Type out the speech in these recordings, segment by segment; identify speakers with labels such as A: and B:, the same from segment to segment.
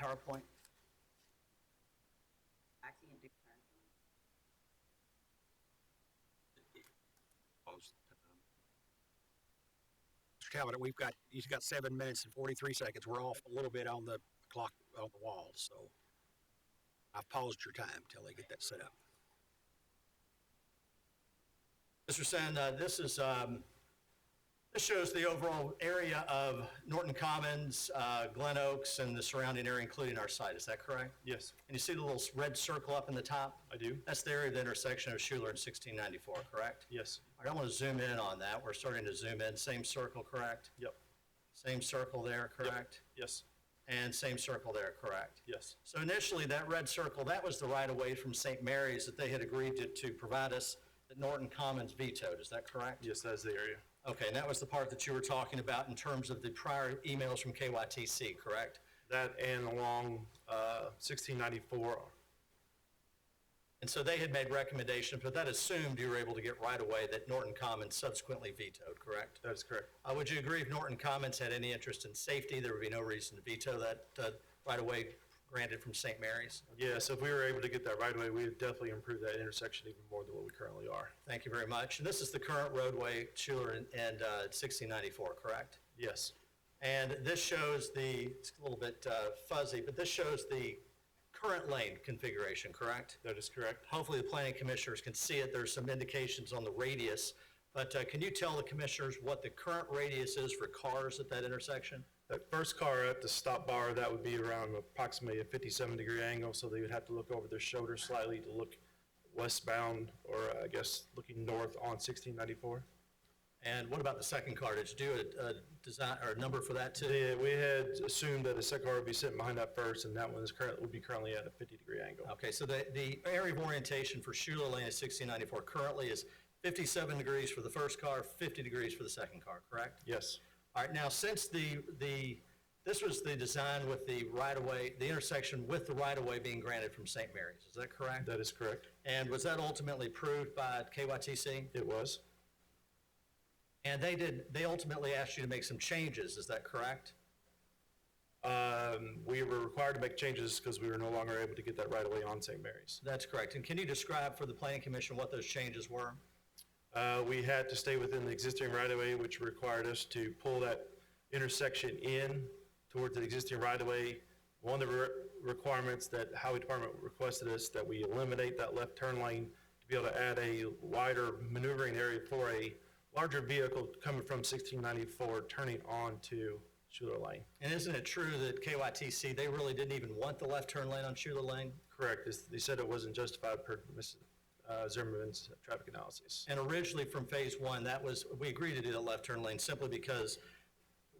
A: PowerPoint?
B: I can't do PowerPoint.
C: Most of the time.
A: Mr. Talbot, we've got, he's got seven minutes and forty-three seconds. We're off a little bit on the clock, on the wall, so I've paused your time till they get that set up.
D: Mr. Sen, uh, this is, um, this shows the overall area of Norton Commons, uh, Glen Oaks, and the surrounding area, including our site. Is that correct?
E: Yes,
D: And you see the little s- red circle up in the top?
E: I do.
D: That's the area of the intersection of Schuler and 1694, correct?
E: Yes,
D: All right, I want to zoom in on that. We're starting to zoom in. Same circle, correct?
E: Yep.
D: Same circle there, correct?
E: yes,
D: And same circle there, correct?
E: yes,
D: So initially, that red circle, that was the right-of-way from St. Mary's that they had agreed to, to provide us, that Norton Commons vetoed, is that correct?
E: yes, that's the area.
D: Okay, and that was the part that you were talking about in terms of the prior emails from KYTC, correct?
E: That and along uh, 1694,
D: And so they had made recommendations, but that assumed you were able to get right-of-way that Norton Commons subsequently vetoed, correct?
E: that is correct.
D: Uh, would you agree if Norton Commons had any interest in safety, there would be no reason to veto that, uh, right-of-way granted from St. Mary's?
E: Yes, if we were able to get that right away, we would definitely improve that intersection even more than what we currently are.
D: Thank you very much. And this is the current roadway, Schuler and, and, uh, sixteen ninety-four, correct?
E: Yes,
D: And this shows the, it's a little bit uh, fuzzy, but this shows the current lane configuration, correct?
E: that is correct.
D: Hopefully, the planning commissioners can see it. There's some indications on the radius. But uh, can you tell the commissioners what the current radius is for cars at that intersection?
E: That first car at the stop bar, that would be around approximately a 57 degree angle, so they would have to look over their shoulder slightly to look westbound, or uh, I guess looking north on 1694.
D: And what about the second car? Did you do a, a design or a number for that too?
E: Yeah, we had assumed that the second car would be sitting behind that first, and that one is current, would be currently at a 50 degree angle.
D: Okay, so the, the area of orientation for Schuler Lane at 1694 currently is 57 degrees for the first car, 50 degrees for the second car, correct?
E: Yes,
D: All right, now, since the, the, this was the design with the right-of-way, the intersection with the right-of-way being granted from St. Mary's, is that correct?
E: that is correct.
D: And was that ultimately approved by KYTC?
E: It was.
D: And they did, they ultimately asked you to make some changes, is that correct?
E: Um, we were required to make changes because we were no longer able to get that right away on St. Mary's.
D: That's correct. And can you describe for the planning commission what those changes were?
E: Uh, we had to stay within the existing right of way, which required us to pull that intersection in towards the existing right of way. One of the re- requirements that Highway Department requested us that we eliminate that left turn lane to be able to add a wider maneuvering area for a larger vehicle coming from 1694 turning on to Schuler Lane.
D: And isn't it true that KYTC, they really didn't even want the left turn lane on Schuler Lane?
E: Correct. It's- They said it wasn't justified per Ms. uh, Zimmerman's traffic analysis.
D: And originally from phase one, that was, we agreed to do that left turn lane simply because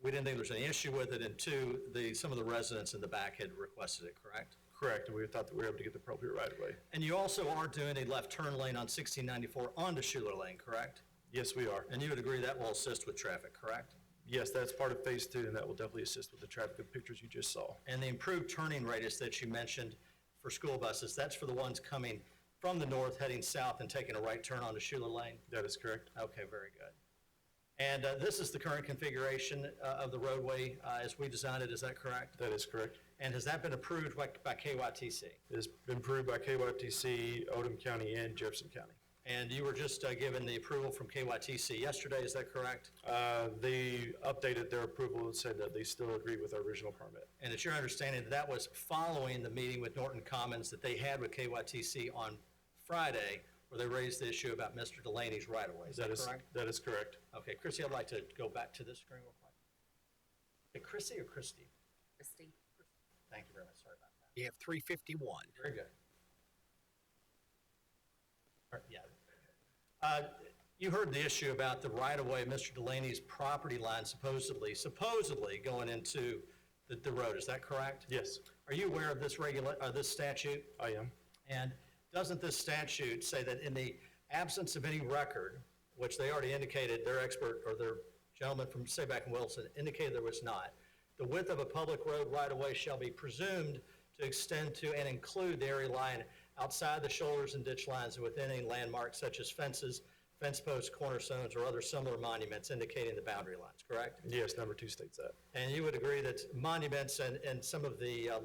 D: we didn't think there was any issue with it, and two, the, some of the residents in the back had requested it, correct?
E: Correct, and we thought that we were able to get the appropriate right away.
D: And you also are doing a left turn lane on sixteen ninety-four onto Schuler Lane, correct?
E: Yes, we are.
D: And you would agree that will assist with traffic, correct?
E: Yes, that's part of phase two, and that will definitely assist with the traffic and pictures you just saw.
D: And the improved turning radius that you mentioned for school buses, that's for the ones coming from the north, heading south and taking a right turn onto Schuler Lane?
E: That is correct.
D: Okay, very good. And uh, this is the current configuration uh, of the roadway uh, as we designed it, is that correct?
E: That is correct.
D: And has that been approved by by KYTC?
E: It's been approved by KYTC, Odom County, and Jefferson County.
D: And you were just uh, given the approval from KYTC yesterday, is that correct?
E: Uh, They updated their approval and said that they still agree with our original permit.
D: And it's your understanding that that was following the meeting with Norton Commons that they had with KYTC on Friday, where they raised the issue about Mr. Delaney's right-of-way, is that correct?
E: That is correct.
D: Okay, Chrissy, I'd like to go back to this screen real quick. Hey, Chrissy or Christie?
B: Christie?
D: Thank you very much, sorry about that.
A: You have three fifty-one.
D: Very good. Or- Yeah. Uh, You heard the issue about the right-of-way, Mr. Delaney's property line supposedly, supposedly going into the, the road, is that correct?
E: Yes,
D: Are you aware of this regula, uh, this statute?
E: I am.
D: And doesn't this statute say that in the absence of any record, which they already indicated, their expert or their gentleman from Sayback and Wilson indicated there was not, the width of a public road right of way shall be presumed to extend to and include the area lying outside the shoulders and ditch lines and within any landmark such as fences, fence posts, cornerstones, or other similar monuments indicating the boundary lines, correct?
E: Yes, number two states that.
D: And you would agree that monuments and, and some of the uh,